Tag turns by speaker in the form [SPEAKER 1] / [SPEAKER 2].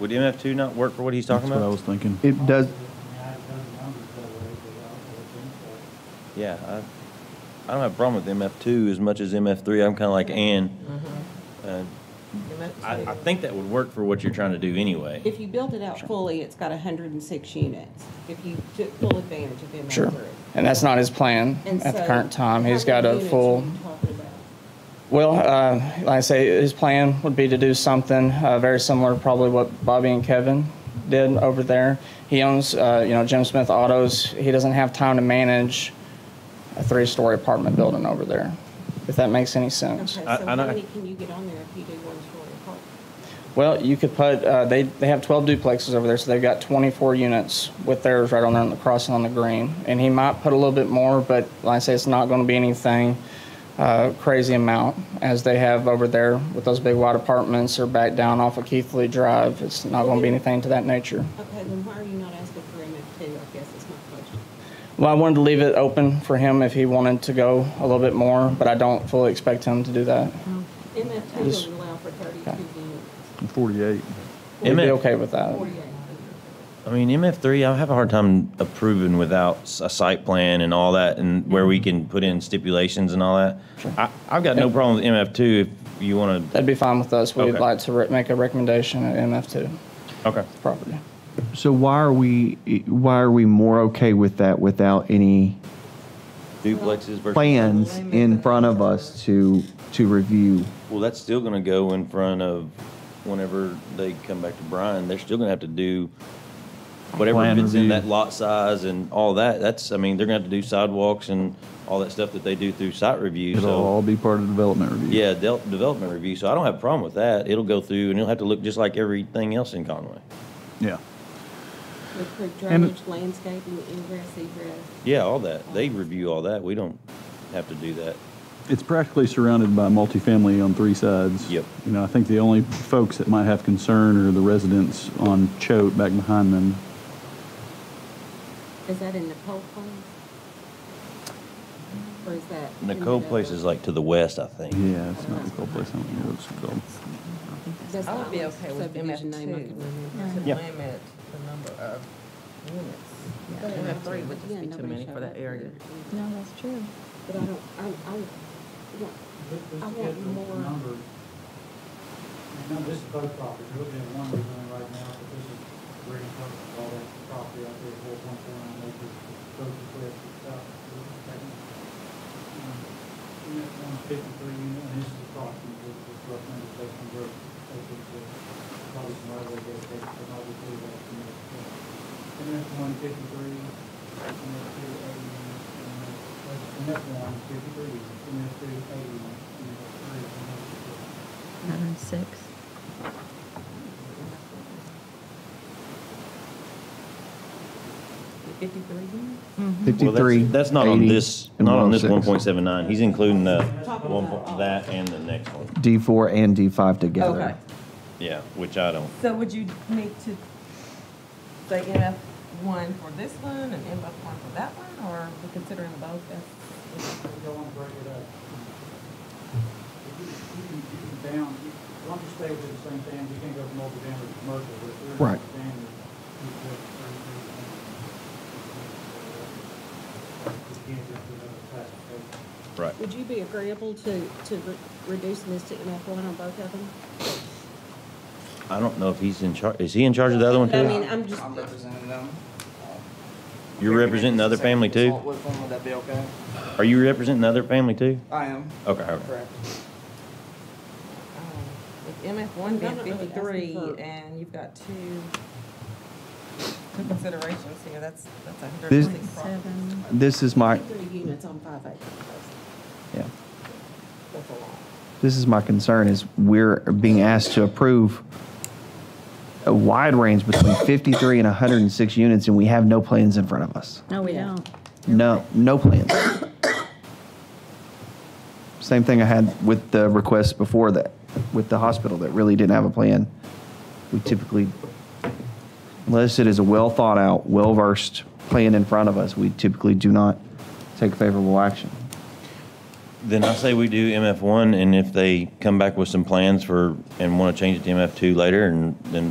[SPEAKER 1] Would MF two not work for what he's talking
[SPEAKER 2] That's what I
[SPEAKER 1] about?
[SPEAKER 2] was thinking.
[SPEAKER 3] It does,
[SPEAKER 1] Yeah, I, I don't have a problem with MF two as much as MF three. I'm kind of like Ann. Uh, I, I think that would work for what you're trying to do anyway.
[SPEAKER 4] If you build it out fully, it's got hundred and six units, if you took full advantage of MF
[SPEAKER 5] Sure.
[SPEAKER 4] three.
[SPEAKER 5] And that's not his plan
[SPEAKER 4] And
[SPEAKER 5] at the
[SPEAKER 4] so,
[SPEAKER 5] current time. He's
[SPEAKER 4] how
[SPEAKER 5] got
[SPEAKER 4] many
[SPEAKER 5] a
[SPEAKER 4] units
[SPEAKER 5] full,
[SPEAKER 4] are you talking about?
[SPEAKER 5] well, uh, like I say, his plan would be to do something uh, very similar to probably what Bobby and Kevin did over there. He owns, uh, you know, Jim Smith Autos. He doesn't have time to manage a three-story apartment building over there, if that makes any sense.
[SPEAKER 4] Okay,
[SPEAKER 1] I-
[SPEAKER 4] so
[SPEAKER 1] I
[SPEAKER 4] how
[SPEAKER 1] know-
[SPEAKER 4] many can you get on there if you do one story apart?
[SPEAKER 5] Well, you could put, uh, they, they have 12 duplexes over there, so they've got 24 units with theirs right on there on the crossing on the green. And he might put a little bit more, but like I say, it's not going to be anything uh, crazy amount as they have over there with those big wide apartments or back down off of Keithley Drive. It's not going to be anything to that nature.
[SPEAKER 4] Okay, then why are you not asking for MF two, I guess is my question.
[SPEAKER 5] Well, I wanted to leave it open for him if he wanted to go a little bit more, but I don't fully expect him to do that.
[SPEAKER 1] Oh.
[SPEAKER 4] MF two
[SPEAKER 5] Yes.
[SPEAKER 4] would allow for thirty-two units,
[SPEAKER 2] Forty-eight.
[SPEAKER 5] We'd be
[SPEAKER 1] MF
[SPEAKER 5] okay with that.
[SPEAKER 4] forty-eight.
[SPEAKER 1] I mean, MF3, I have a hard time approving without s- a site plan and all that, and where we can put in stipulations and all that. I, I've got no problem with MF2 if you want to,
[SPEAKER 5] That'd be fine with us. We'd
[SPEAKER 1] Okay.
[SPEAKER 5] like to re- make a recommendation at MF2
[SPEAKER 1] okay.
[SPEAKER 5] property.
[SPEAKER 3] so why are we, why are we more okay with that without any
[SPEAKER 1] Duplexes versus.
[SPEAKER 3] plans in front of us to, to review?
[SPEAKER 1] Well, that's still going to go in front of, whenever they come back to Brian, they're still going to have to do whatever
[SPEAKER 2] Plan
[SPEAKER 1] fits in
[SPEAKER 2] review.
[SPEAKER 1] that lot size and all that. That's, I mean, they're going to have to do sidewalks and all that stuff that they do through site review,
[SPEAKER 2] It'll
[SPEAKER 1] so.
[SPEAKER 2] all be part of the development review.
[SPEAKER 1] Yeah, del- development review, so I don't have a problem with that. It'll go through and it'll have to look just like everything else in Conway.
[SPEAKER 2] Yeah.
[SPEAKER 4] Improve
[SPEAKER 2] And-
[SPEAKER 4] drainage, landscaping, ingress, egress.
[SPEAKER 1] Yeah, all that. They review all that. We don't have to do that.
[SPEAKER 2] It's practically surrounded by multifamily on three sides.
[SPEAKER 1] Yep.
[SPEAKER 2] You know, I think the only folks that might have concern are the residents on Choate back behind them.
[SPEAKER 4] Is that in Nicole Place? Or is that? in
[SPEAKER 1] Nicole Place
[SPEAKER 4] whatever-
[SPEAKER 1] is like to the west, I think.
[SPEAKER 2] Yeah, it's not the cold place. I don't know what it's called.
[SPEAKER 4] That's
[SPEAKER 6] I
[SPEAKER 4] the
[SPEAKER 6] would be
[SPEAKER 4] only
[SPEAKER 6] okay with MF
[SPEAKER 4] subdivision name I
[SPEAKER 6] two,
[SPEAKER 4] could remember.
[SPEAKER 6] to
[SPEAKER 1] Yeah.
[SPEAKER 6] limit the number of units.
[SPEAKER 4] But I
[SPEAKER 6] MF three
[SPEAKER 4] don't-
[SPEAKER 6] would just
[SPEAKER 4] yeah,
[SPEAKER 6] be too
[SPEAKER 4] nobody
[SPEAKER 6] many
[SPEAKER 4] showed up
[SPEAKER 6] for that area.
[SPEAKER 4] either.
[SPEAKER 7] No, that's true.
[SPEAKER 4] But I don't, I, I, yeah, I want more,
[SPEAKER 8] No, this is both properties, we're looking at one we're doing right now, but this is very close to all that property out there, four point four nine acres, goes to west, south. And that one's fifty-three unit, and this is approximately, this is rough number, they convert, they could, uh, probably some other way, they could, but obviously, that's the next step. And that's one fifty-three, and that's two eighty, units, and that's, and that's one fifty-three, units, and that's two eighty, units, and that's three, and that's four.
[SPEAKER 7] 106.
[SPEAKER 6] Fifty-three units?
[SPEAKER 4] Mm.
[SPEAKER 1] Well, that's,
[SPEAKER 3] 53,
[SPEAKER 1] that's not on
[SPEAKER 3] 80,
[SPEAKER 1] this,
[SPEAKER 3] and
[SPEAKER 1] not on this
[SPEAKER 3] 106.
[SPEAKER 1] 1.79. He's including the one, point- that and the next one.
[SPEAKER 3] D4 and D5 together.
[SPEAKER 6] Okay.
[SPEAKER 1] Yeah, which I don't.
[SPEAKER 6] So would you need to say MF one for this one and MF one for that one, or we considering both as?
[SPEAKER 8] Y'all wanna break it up? You you can, you can down, you, as long as you stay within the same thing, you can't go from multiple down to commercial, but if you're in
[SPEAKER 3] Right.
[SPEAKER 8] multifamily, you put thirty-three down. You can't just do another classification.
[SPEAKER 1] Right.
[SPEAKER 4] would you be agreeable to, to re- reducing this to MF one on both of them?
[SPEAKER 1] I don't know if he's in charge. Is he in charge of the other one
[SPEAKER 4] But I
[SPEAKER 1] too?
[SPEAKER 4] mean, I'm just,
[SPEAKER 5] representing them.
[SPEAKER 1] You're representing the other family too?
[SPEAKER 5] Would that be okay?
[SPEAKER 1] Are you representing the other family too?
[SPEAKER 5] I am,
[SPEAKER 1] Okay, okay.
[SPEAKER 6] With MF one being
[SPEAKER 4] I'm not really asking
[SPEAKER 6] fifty-three,
[SPEAKER 4] for-
[SPEAKER 6] and you've got two, two considerations here, that's, that's a hundred
[SPEAKER 3] This-
[SPEAKER 6] and six properties.
[SPEAKER 7] Seven.
[SPEAKER 3] This is my,
[SPEAKER 4] three units on five acres.
[SPEAKER 3] yeah.
[SPEAKER 6] That's a lot.
[SPEAKER 3] This is my concern is we're being asked to approve a wide range between 53 and 106 units and we have no plans in front of us.
[SPEAKER 7] No, we don't.
[SPEAKER 3] No, no plans. Same thing I had with the request before that, with the hospital that really didn't have a plan. We typically, unless it is a well thought out, well versed plan in front of us, we typically do not take favorable action.
[SPEAKER 1] Then I say we do MF one and if they come back with some plans for, and want to change it to MF two later and then